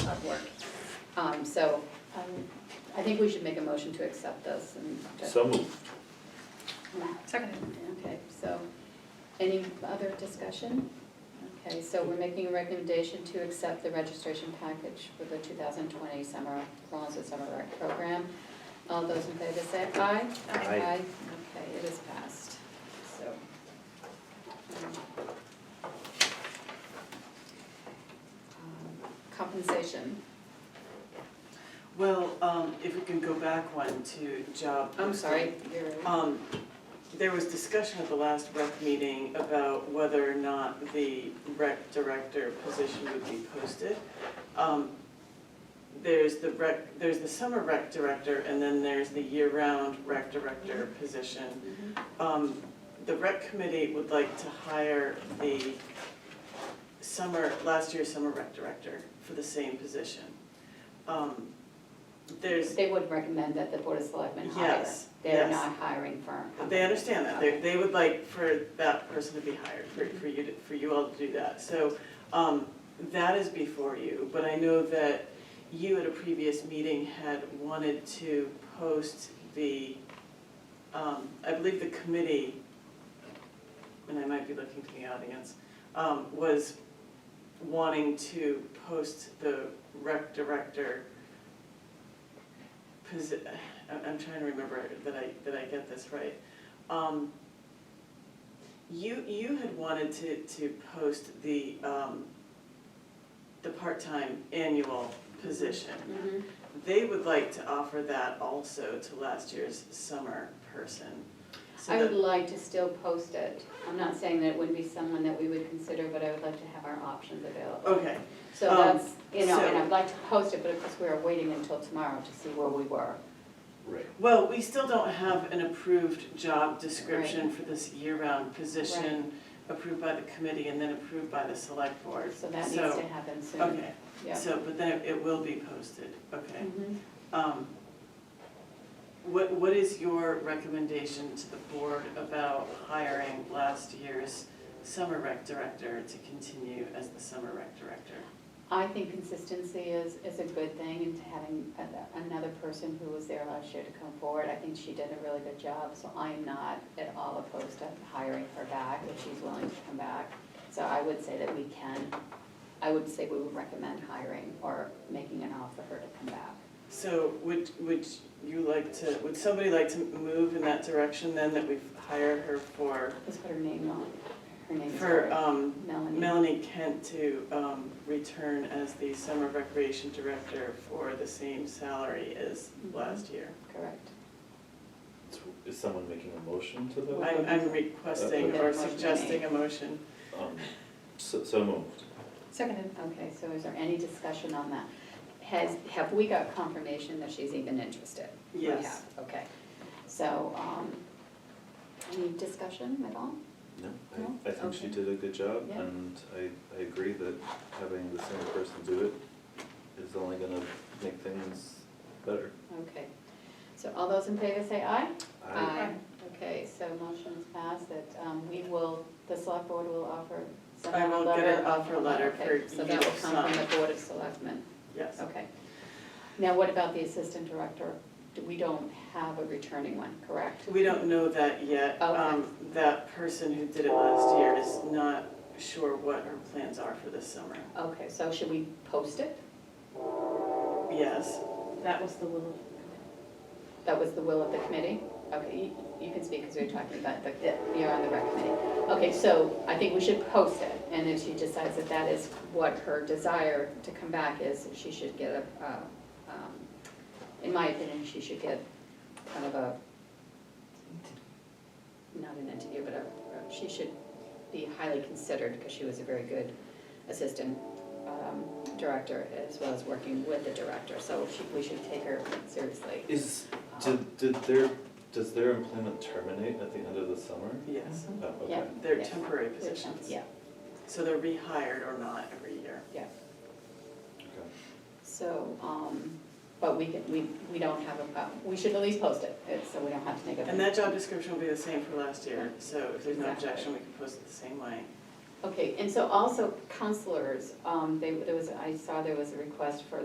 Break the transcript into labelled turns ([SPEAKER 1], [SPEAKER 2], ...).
[SPEAKER 1] Um, so, um, I think we should make a motion to accept this and.
[SPEAKER 2] So moved.
[SPEAKER 3] Seconded.
[SPEAKER 1] Okay, so, any other discussion? Okay, so we're making a recommendation to accept the registration package for the two thousand twenty summer, Rollinsford Summer Rec Program. All those in favor say aye.
[SPEAKER 2] Aye. Aye.
[SPEAKER 1] Okay, it is passed, so. um, um, Compensation.
[SPEAKER 4] Well, um, if we can go back one to job.
[SPEAKER 1] I'm sorry, you're,
[SPEAKER 4] Um, there was discussion at the last rec meeting about whether or not the rec director position would be posted. Um, there's the rec, there's the summer rec director, and then there's the year-round rec director position. Um, the rec committee would like to hire the summer, last year's summer rec director for the same position. Um, there's,
[SPEAKER 1] they would recommend that the Board of Selectmen hire.
[SPEAKER 4] Yes,
[SPEAKER 1] They're
[SPEAKER 4] yes.
[SPEAKER 1] not hiring firm.
[SPEAKER 4] They understand that, they, they would like for that person to be hired, for, for you to, for you all to do that, so, um, that is before you, but I know that you at a previous meeting had wanted to post the, um, I believe the committee, and I might be looking to the audience, um, was wanting to post the rec director posi- I'm, I'm trying to remember that I, that I get this right. Um, you, you had wanted to, to post the, um, the part-time annual position.
[SPEAKER 1] Mhm.
[SPEAKER 4] They would like to offer that also to last year's summer person. So
[SPEAKER 1] I would
[SPEAKER 4] that-
[SPEAKER 1] like to still post it. I'm not saying that it wouldn't be someone that we would consider, but I would like to have our options available.
[SPEAKER 4] Okay,
[SPEAKER 1] So
[SPEAKER 4] um,
[SPEAKER 1] that's, you know, and
[SPEAKER 4] so-
[SPEAKER 1] I'd like to post it, but of course, we are waiting until tomorrow to see where we were.
[SPEAKER 2] Right.
[SPEAKER 4] well, we still don't have an approved job description for this year-round position approved by the committee and then approved by the select board.
[SPEAKER 1] So that needs to happen soon.
[SPEAKER 4] Okay.
[SPEAKER 1] Yeah.
[SPEAKER 4] So, but then it- it will be posted, okay.
[SPEAKER 1] Mhm.
[SPEAKER 4] Um, What, what is your recommendation to the board about hiring last year's summer rec director to continue as the summer rec director?
[SPEAKER 1] I think consistency is, is a good thing and to having a- another person who was there last year to come forward. I think she did a really good job, so I'm not at all opposed to hiring her back if she's willing to come back. So I would say that we can, I would say we would recommend hiring or making an offer for her to come back.
[SPEAKER 4] So would, would you like to, would somebody like to move in that direction then, that we hire her for,
[SPEAKER 1] Let's put her name on, her name
[SPEAKER 4] for
[SPEAKER 1] is
[SPEAKER 4] um,
[SPEAKER 1] Melanie.
[SPEAKER 4] Melanie Kent to um, return as the summer recreation director for the same salary as
[SPEAKER 1] Mm-hmm.
[SPEAKER 4] last year?
[SPEAKER 1] Correct.
[SPEAKER 2] Is someone making a motion to that?
[SPEAKER 4] I'm, I'm requesting or suggesting a motion.
[SPEAKER 2] Um, So, so moved.
[SPEAKER 3] Seconded.
[SPEAKER 1] Okay, so is there any discussion on that? Has, have we got confirmation that she's even interested? We
[SPEAKER 4] Yes.
[SPEAKER 1] have, Okay, so, um, any discussion at all?
[SPEAKER 2] No,
[SPEAKER 1] No?
[SPEAKER 2] I, I think she
[SPEAKER 1] Okay.
[SPEAKER 2] did a good job
[SPEAKER 1] Yeah.
[SPEAKER 2] and I, I agree that having the same person do it is only gonna make things better.
[SPEAKER 1] Okay, so all those in favor say aye? Uh,
[SPEAKER 2] I
[SPEAKER 1] Okay, so motion is passed that, um, we will, the select board will offer, send
[SPEAKER 4] I
[SPEAKER 1] out a
[SPEAKER 4] will
[SPEAKER 1] letter.
[SPEAKER 4] get an offer letter for
[SPEAKER 1] Okay, So that
[SPEAKER 4] you
[SPEAKER 1] will
[SPEAKER 4] to
[SPEAKER 1] come from
[SPEAKER 4] sign.
[SPEAKER 1] the board of selectmen,
[SPEAKER 4] Yes.
[SPEAKER 1] okay. Now, what about the assistant director? Do- We don't have a returning one, correct?
[SPEAKER 4] We don't know that yet.
[SPEAKER 1] Okay.
[SPEAKER 4] Um, That person who did it last year is not sure what her plans are for this summer.
[SPEAKER 1] Okay, so should we post it?
[SPEAKER 4] Yes,
[SPEAKER 5] That was the little,
[SPEAKER 1] That was the will of the committee? Okay, you, you can speak because we we're talking about the, you're on the rec committee. Okay, so I think we should post it, and if she decides that that is what her desire to come back is, she should get a, uh, um, in my opinion, she should get kind of a, not an interview, but a, she should be highly considered because she was a very good assistant um, director as well as working with the director, so she, we should take her seriously.
[SPEAKER 2] Is,
[SPEAKER 1] Um,
[SPEAKER 2] did, did their, does their employment terminate at the end of the summer?
[SPEAKER 4] yes.
[SPEAKER 2] Oh, okay.
[SPEAKER 1] Mm-hmm. Yeah.
[SPEAKER 4] They're
[SPEAKER 1] Yes.
[SPEAKER 4] temporary positions.
[SPEAKER 1] Yeah,
[SPEAKER 4] So they're rehired or not every year.
[SPEAKER 1] yeah,
[SPEAKER 2] Okay.
[SPEAKER 1] so, um, but we can, we, we don't have a, uh, we should at least post it, it's- so we don't have to make a.
[SPEAKER 4] And that job description will be the same for last year, so if there's no
[SPEAKER 1] Exactly.
[SPEAKER 4] objection, we can post it the same way.
[SPEAKER 1] Okay, and so also counselors, um, they, there was, I saw there was a request for